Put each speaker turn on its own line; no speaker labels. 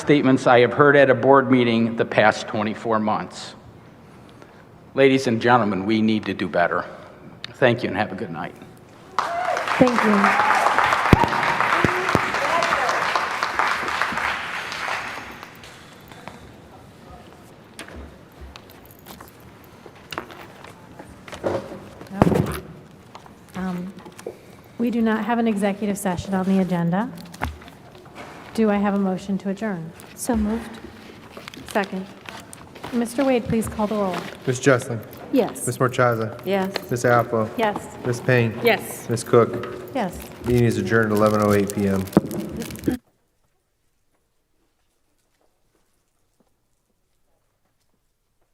statements I have heard at a board meeting the past 24 months. Ladies and gentlemen, we need to do better. Thank you and have a good night.
Thank you. Um, We do not have an executive session on the agenda. Do I have a motion to adjourn?
So moved. Second.
Mr. Wade, please call the roll.
Ms. Jesselin.
Yes.
Ms. Marchaza.
Yes.
Ms. Alpo.
Yes.
Ms. Payne.
Yes.
Ms. Cook.
Yes.
oh Meeting is adjourned at 11:08 PM.